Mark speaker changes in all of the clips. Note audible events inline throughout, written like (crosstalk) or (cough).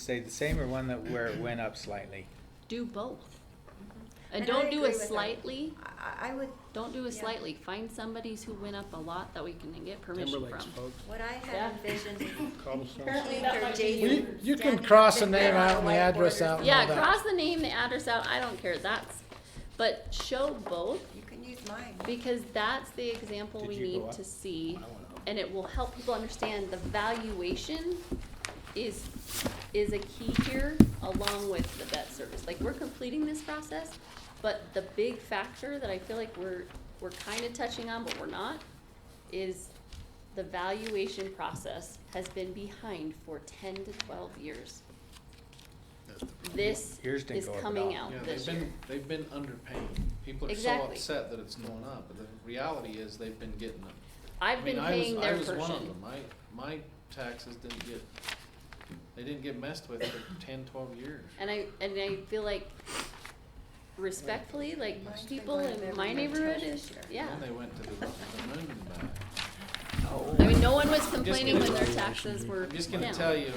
Speaker 1: stayed the same or one that where it went up slightly?
Speaker 2: Do both. And
Speaker 3: Mm-hmm. And I
Speaker 2: don't do a
Speaker 3: agree with her.
Speaker 2: slightly,
Speaker 3: I, I would,
Speaker 2: don't do a
Speaker 3: Yeah.
Speaker 2: slightly. Find somebody's who went up a lot that we can get permission
Speaker 4: Timberlake's
Speaker 2: from.
Speaker 4: folks,
Speaker 3: what I
Speaker 2: Yeah.
Speaker 3: had envisioned,
Speaker 4: (laughs) cobblestones.
Speaker 3: apparently
Speaker 5: That
Speaker 3: they're
Speaker 5: might be
Speaker 3: dating.
Speaker 5: Well,
Speaker 4: you- you can cross the name out and the address out.
Speaker 2: Yeah,
Speaker 4: Well, that-
Speaker 2: cross the name, the address out, I don't care, that's, but show both,
Speaker 3: You can use mine.
Speaker 2: because that's the example
Speaker 1: Did
Speaker 2: we
Speaker 1: you go
Speaker 2: need
Speaker 1: up?
Speaker 2: to see. And it will help people understand the valuation is, is a key here, along with the debt service. Like, we're completing this process, but the big factor that I feel like we're, we're kinda touching on, but we're not, is the valuation process has been behind for ten to twelve years. This
Speaker 1: Yours didn't
Speaker 2: is
Speaker 1: go up at
Speaker 2: coming
Speaker 1: all.
Speaker 2: out
Speaker 6: Yeah, they've
Speaker 2: this year.
Speaker 6: been, they've been underpaying. People are so
Speaker 2: Exactly.
Speaker 6: upset that it's going up, but the reality is they've been getting them.
Speaker 2: I've been paying their
Speaker 6: I mean, I was, I was one
Speaker 2: portion.
Speaker 6: of them. My, my taxes didn't get, they didn't get messed with for ten, twelve years.
Speaker 2: And I, and I feel like respectfully, like
Speaker 3: Mine's been
Speaker 2: people
Speaker 3: going up
Speaker 2: in
Speaker 3: every
Speaker 2: my
Speaker 3: year
Speaker 2: neighborhood
Speaker 3: until
Speaker 2: is,
Speaker 3: this year.
Speaker 2: yeah.
Speaker 6: Then they went to the, the moon and back.
Speaker 2: I mean, no one was complaining when
Speaker 6: gonna-
Speaker 2: their taxes were
Speaker 6: I'm just gonna
Speaker 2: down.
Speaker 6: tell you,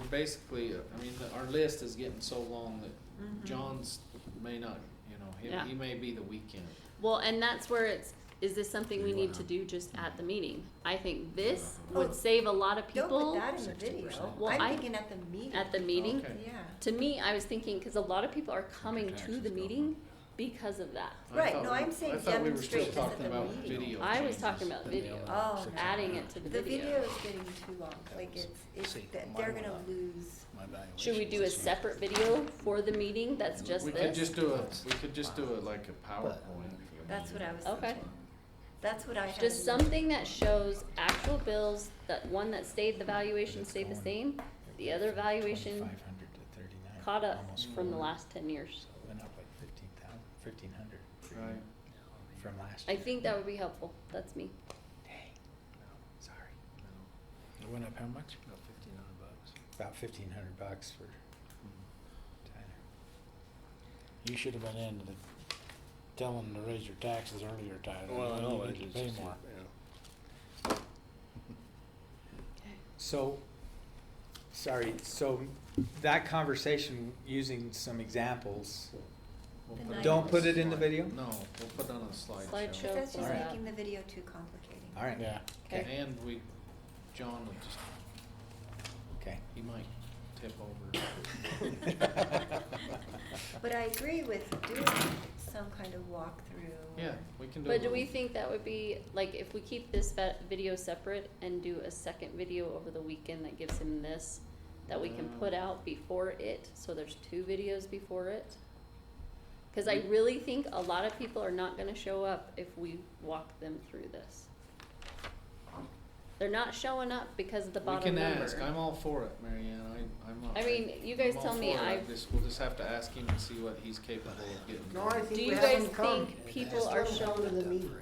Speaker 6: we're basically, uh, I mean, the- our list is getting so long that John's may not, you know,
Speaker 2: Mm-hmm. Yeah.
Speaker 6: he, he may be the weekend.
Speaker 2: Well, and that's where it's, is this something we need to do just at the meeting? I think this would
Speaker 3: Oh.
Speaker 2: save a lot of
Speaker 3: Don't put
Speaker 2: people
Speaker 3: that in the video.
Speaker 2: Well, I-
Speaker 3: I'm thinking at the meeting.
Speaker 2: at the meeting.
Speaker 6: Okay.
Speaker 3: Yeah.
Speaker 2: To me, I was thinking, cause a lot of people are coming to the meeting because of that.
Speaker 6: I
Speaker 3: Right,
Speaker 6: thought
Speaker 3: no,
Speaker 6: we-
Speaker 3: I'm saying
Speaker 6: I thought we were still
Speaker 3: demonstrate this at
Speaker 6: talking
Speaker 3: the
Speaker 6: about
Speaker 3: meeting.
Speaker 6: video
Speaker 2: I was
Speaker 6: changes
Speaker 2: talking about
Speaker 6: in the
Speaker 2: video.
Speaker 6: other-
Speaker 4: Uh,
Speaker 3: Oh,
Speaker 2: Adding it to the
Speaker 3: the video
Speaker 2: video.
Speaker 3: is getting too long. Like it's, it's,
Speaker 4: See,
Speaker 3: that
Speaker 4: mine
Speaker 3: they're
Speaker 4: went
Speaker 3: gonna
Speaker 4: up.
Speaker 3: lose.
Speaker 2: Should we do a separate video for the meeting that's just
Speaker 6: We
Speaker 2: this?
Speaker 6: could just do a, we could just do it like a PowerPoint.
Speaker 3: That's what I was
Speaker 2: Okay.
Speaker 3: thinking. That's what I had.
Speaker 2: Just
Speaker 3: in
Speaker 2: something that shows actual bills, that one that stayed, the valuation
Speaker 1: It's
Speaker 2: stayed the
Speaker 1: going-
Speaker 2: same, the other valuation
Speaker 1: 2,500 to 39,
Speaker 2: caught up
Speaker 1: almost
Speaker 2: from the
Speaker 1: 400.
Speaker 2: last ten years.
Speaker 1: So it Went up like fifteen thousand, fifteen hundred
Speaker 6: Right.
Speaker 1: from last
Speaker 2: I
Speaker 1: year.
Speaker 2: think that would be helpful, that's me.
Speaker 1: Dang. Sorry.
Speaker 4: It went up how much? About
Speaker 1: About fifteen hundred bucks for Tyler.
Speaker 4: You should have been in to tell them to raise your taxes earlier, Tyler.
Speaker 7: Well, I
Speaker 4: You
Speaker 7: know,
Speaker 4: need
Speaker 7: it's
Speaker 4: to
Speaker 7: just,
Speaker 4: pay
Speaker 7: yeah.
Speaker 4: more.
Speaker 1: So, sorry, so that conversation using some examples,
Speaker 6: We'll
Speaker 3: The
Speaker 6: put it on
Speaker 1: Don't
Speaker 6: a
Speaker 1: put it in the
Speaker 6: slide-
Speaker 1: video?
Speaker 6: No, we'll put it on a slideshow.
Speaker 2: Slideshow.
Speaker 3: That's just
Speaker 1: Alright.
Speaker 3: making the video too complicated.
Speaker 1: all right,
Speaker 4: Yeah.
Speaker 2: Okay,
Speaker 6: And we, John will just,
Speaker 1: okay.
Speaker 6: he might tip over.
Speaker 2: (laughs)
Speaker 3: (laughs)
Speaker 1: (laughs)
Speaker 3: But I agree with doing some kind of walkthrough.
Speaker 6: Yeah, we can do. a
Speaker 2: but do we
Speaker 6: little-
Speaker 2: think that would be, like, if we keep this va- video separate and do a second video over the weekend that gives him this, that we can put out before it, so there's two videos before it? Cause I
Speaker 6: Mm-hmm.
Speaker 2: really think a lot of people are not gonna show up if we walk them through this. They're not showing up because of the
Speaker 6: We
Speaker 2: bottom
Speaker 6: can
Speaker 2: number.
Speaker 6: ask, I'm all for it, Mary Ann, I, I'm not.
Speaker 2: I mean, you guys
Speaker 6: I'm all
Speaker 2: tell me,
Speaker 6: for it.
Speaker 2: I've-
Speaker 6: just- We'll just have to ask him and see what he's capable of getting.
Speaker 8: No, I
Speaker 6: done.
Speaker 2: Do
Speaker 8: think we
Speaker 2: you
Speaker 8: have
Speaker 2: guys
Speaker 8: them come.
Speaker 2: think people are
Speaker 8: Just let them come
Speaker 2: showing-
Speaker 8: to the meeting.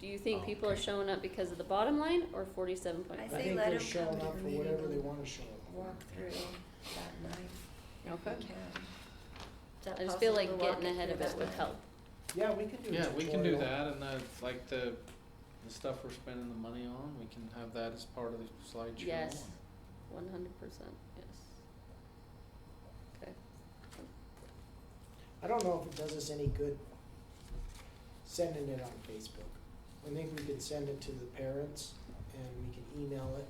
Speaker 2: Do you
Speaker 6: Oh,
Speaker 2: think people are showing up because of the bottom line or forty-seven point
Speaker 3: I
Speaker 8: I
Speaker 2: five?
Speaker 3: say
Speaker 8: think
Speaker 3: let
Speaker 8: they're
Speaker 3: them
Speaker 8: showing
Speaker 3: come to
Speaker 8: up
Speaker 3: the
Speaker 8: for
Speaker 3: meeting
Speaker 8: whatever they
Speaker 3: and
Speaker 8: wanna show up.
Speaker 3: Walk through that night. if we
Speaker 2: Okay.
Speaker 3: can. Is that
Speaker 2: I just feel
Speaker 3: possible to
Speaker 2: like
Speaker 3: walk
Speaker 2: getting ahead
Speaker 3: through
Speaker 2: of
Speaker 3: that
Speaker 2: it would
Speaker 3: night?
Speaker 2: help.
Speaker 8: Yeah, we can do a
Speaker 6: Yeah,
Speaker 8: tutorial.
Speaker 6: we can do that, and uh, like the, the stuff we're spending the money on, we can have that as part of the slideshow.
Speaker 2: Yes, one hundred percent, yes. Okay,
Speaker 8: I don't know if it does us any good sending it on Facebook. I think we can send it to the parents and we can email it.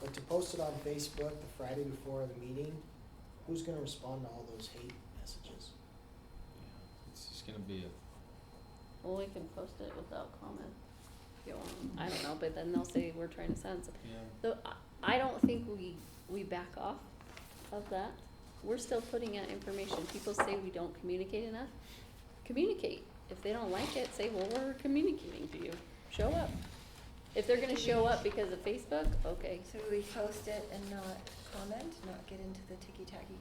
Speaker 8: But to post it on Facebook the Friday before the meeting, who's gonna respond to all those hate messages?
Speaker 6: Yeah, It's just gonna be a,
Speaker 2: well, we can post it without comment. if you want. I don't know, but then they'll say we're trying to send something.
Speaker 6: yeah.
Speaker 2: So I, I don't think we, we back off of that. We're still putting out information. People say we don't communicate enough. Communicate. If they don't like it, say, well, we're communicating to you. Show up. If they're gonna show up because of Facebook, okay.
Speaker 3: So we post it and not comment, not get into the ticky-tacky,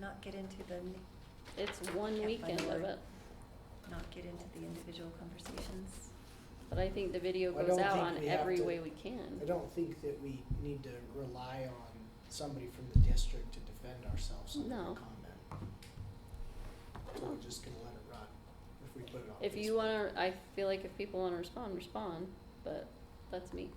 Speaker 3: not get into the, n-
Speaker 2: It's one
Speaker 3: Can't
Speaker 2: weekend
Speaker 3: find the
Speaker 2: of
Speaker 3: word.
Speaker 2: it,
Speaker 3: not get into the individual conversations.
Speaker 2: but I think the video
Speaker 8: I
Speaker 2: goes
Speaker 8: don't
Speaker 2: out
Speaker 8: think
Speaker 2: on
Speaker 8: we have
Speaker 2: every
Speaker 8: to-
Speaker 2: way we can.
Speaker 8: I don't think that we need to rely on somebody from the district to defend ourselves on
Speaker 2: No.
Speaker 8: that comment. So we're just gonna let it run if we put it on
Speaker 2: If you
Speaker 8: Facebook.
Speaker 2: wanna, I feel like if people wanna respond, respond, but that's me.